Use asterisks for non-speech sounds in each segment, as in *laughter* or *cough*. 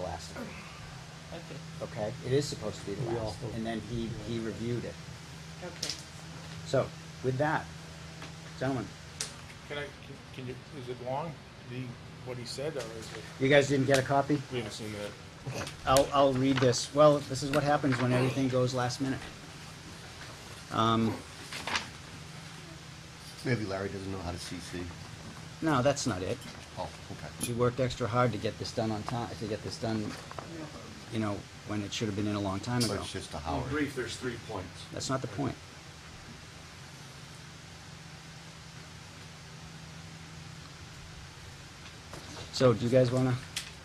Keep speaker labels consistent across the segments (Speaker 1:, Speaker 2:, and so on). Speaker 1: last,
Speaker 2: Okay,
Speaker 1: okay? It is supposed to be the
Speaker 3: We all
Speaker 1: last,
Speaker 3: hope.
Speaker 1: and then he, he reviewed it.
Speaker 2: okay.
Speaker 1: So, with that, gentlemen,
Speaker 4: Can I, can- can you, is it long, the, what he said, or is it?
Speaker 1: you guys didn't get a copy?
Speaker 4: We haven't seen that.
Speaker 1: I'll, I'll read this. Well, this is what happens when everything goes last minute. Um,
Speaker 5: Maybe Larry doesn't know how to CC.
Speaker 1: no, that's not it.
Speaker 5: Oh, okay.
Speaker 1: She worked extra hard to get this done on time, to get this done, you know, when it should have been in a long time
Speaker 5: But
Speaker 1: ago.
Speaker 5: it's just a
Speaker 6: In
Speaker 5: Howard.
Speaker 6: brief, there's three points.
Speaker 1: That's not the point. So, do you guys wanna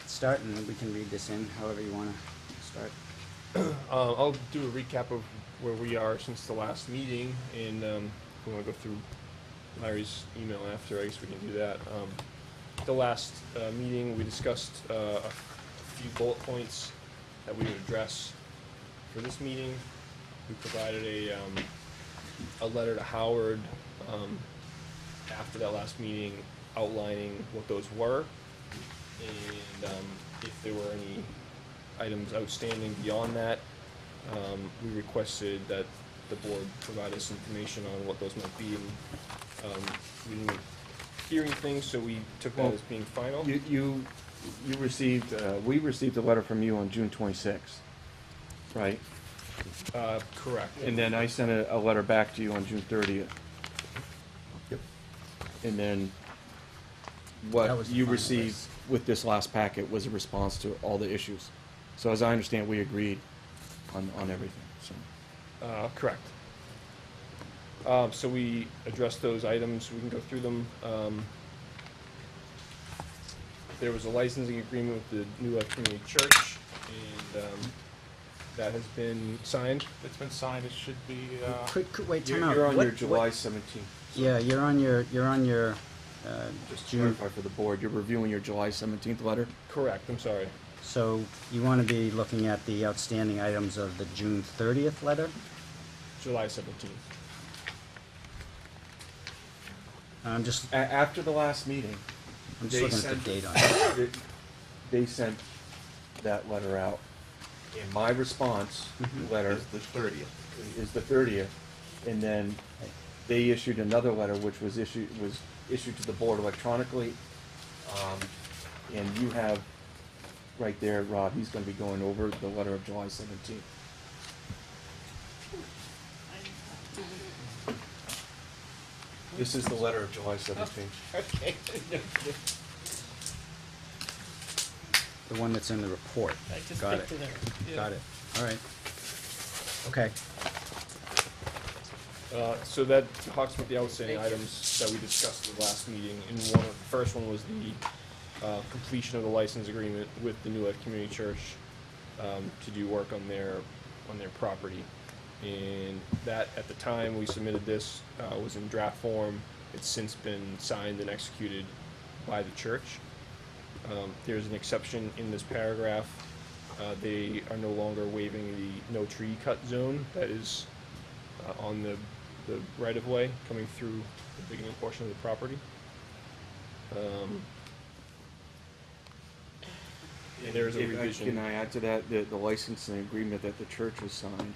Speaker 1: start, and we can read this in however you wanna start?
Speaker 4: Uh, I'll do a recap of where we are since the last meeting, and, um, if we wanna go through Larry's email after, I guess we can do that. Um, the last, uh, meeting, we discussed, uh, a few bullet points that we would address for this meeting. We provided a, um, a letter to Howard, um, after that last meeting outlining what those were. And, um, if there were any items outstanding beyond that, um, we requested that the board provide us information on what those might be. and, Um, we didn't hear anything, so we took that as being final.
Speaker 6: You, you, you received, uh, we received a letter from you on June twenty-sixth, right?
Speaker 4: Uh, correct.
Speaker 6: And then I sent a, a letter back to you on June thirtieth.
Speaker 5: Yep.
Speaker 6: And then
Speaker 1: That
Speaker 6: what
Speaker 1: was the
Speaker 6: you
Speaker 1: final
Speaker 6: received
Speaker 1: list.
Speaker 6: with this last packet was a response to all the issues. So as I understand, we agreed on, on everything, so.
Speaker 4: Uh, correct. Um, so we addressed those items, we can go through them. Um, there was a licensing agreement with the New Life Community Church, and, um, that has been signed.
Speaker 7: It's been signed, it should be, uh,
Speaker 1: Quick, quick, wait, time
Speaker 6: You're,
Speaker 1: out.
Speaker 6: you're on
Speaker 1: What-
Speaker 6: your
Speaker 1: what-
Speaker 6: July seventeenth.
Speaker 1: Yeah, you're on your, you're on your, uh,
Speaker 6: Just to
Speaker 1: June,
Speaker 6: clarify for the board, you're reviewing your July seventeenth letter?
Speaker 4: Correct, I'm sorry.
Speaker 1: so you wanna be looking at the outstanding items of the June thirtieth letter?
Speaker 4: July seventeenth.
Speaker 1: I'm just,
Speaker 6: A- after the last meeting,
Speaker 1: I'm just
Speaker 6: they
Speaker 1: looking at
Speaker 6: sent-
Speaker 1: the
Speaker 6: *coughs*
Speaker 1: date on it.
Speaker 6: they- they sent that letter out. And my response
Speaker 1: Mm-hmm.
Speaker 6: letter
Speaker 5: There's the thirtieth.
Speaker 6: is the thirtieth, and then they issued another letter, which was issued, was issued to the board electronically. Um, and you have, right there, Rob, he's gonna be going over the letter of July seventeenth. This is the letter of July seventeenth.
Speaker 2: *laughs*
Speaker 4: Okay.
Speaker 1: The one that's in the report.
Speaker 2: I just
Speaker 1: Got
Speaker 2: picked
Speaker 1: it.
Speaker 2: it up.
Speaker 1: Got it, all right. Okay,
Speaker 4: Uh, so that talks about the outstanding items that we discussed at the last meeting, and one, of- the first one was the, uh, completion of the license agreement with the New Life Community Church, um, to do work on their, on their property. And that, at the time we submitted this, uh, was in draft form, it's since been signed and executed by the church. Um, there's an exception in this paragraph. Uh, they are no longer waiving the no tree cut zone that is uh, on the, the right of way coming through the beginning portion of the property. Um, and there's a
Speaker 6: If I-
Speaker 4: revision.
Speaker 6: Can I add to that, the, the licensing agreement that the church has signed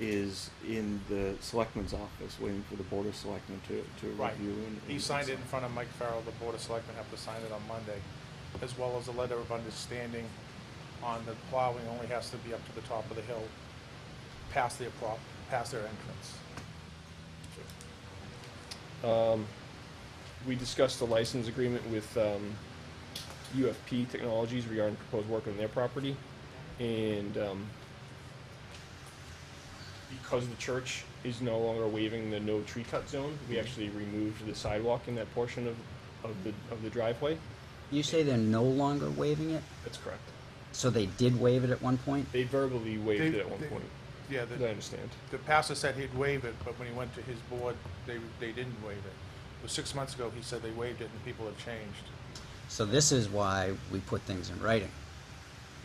Speaker 6: is in the selectman's office, waiting for the board of selectmen to, to
Speaker 7: right.
Speaker 6: review and.
Speaker 7: He
Speaker 6: and
Speaker 7: signed it in
Speaker 6: sign.
Speaker 7: front of Mike Farrell, the Board of Selectmen have to sign it on Monday, as well as a letter of understanding on the plowing only has to be up to the top of the hill, past their prop, past their entrance.
Speaker 4: Um, we discussed the license agreement with, um, UFP Technologies regarding proposed work on their property, and, um, because the church is no longer waiving the no tree cut zone,
Speaker 6: Mm-hmm.
Speaker 4: we actually removed the sidewalk in that portion of, of the, of the driveway.
Speaker 1: you say they're no longer waiving it?
Speaker 4: That's correct.
Speaker 1: So they did waive it at one point?
Speaker 4: They verbally waived
Speaker 7: They-
Speaker 4: it at one
Speaker 7: they-
Speaker 4: point,
Speaker 7: Yeah,
Speaker 4: as I
Speaker 7: the,
Speaker 4: understand.
Speaker 7: the pastor said he'd waive it, but when he went to his board, they, they didn't waive it. It was six months ago, he said they waived it and people have changed.
Speaker 1: So this is why we put things in writing.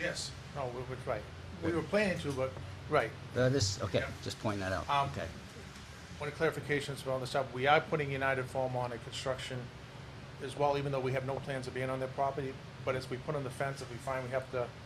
Speaker 7: Yes. No, we were, right. We were planning to, but, right,
Speaker 1: Uh, this, okay,
Speaker 7: Yeah.
Speaker 1: just point that out.
Speaker 7: Um,
Speaker 1: Okay.
Speaker 7: One of clarifications from all this stuff, we are putting United Foam on a construction as well, even though we have no plans of being on their property, but as we put on the fence, if we find we have to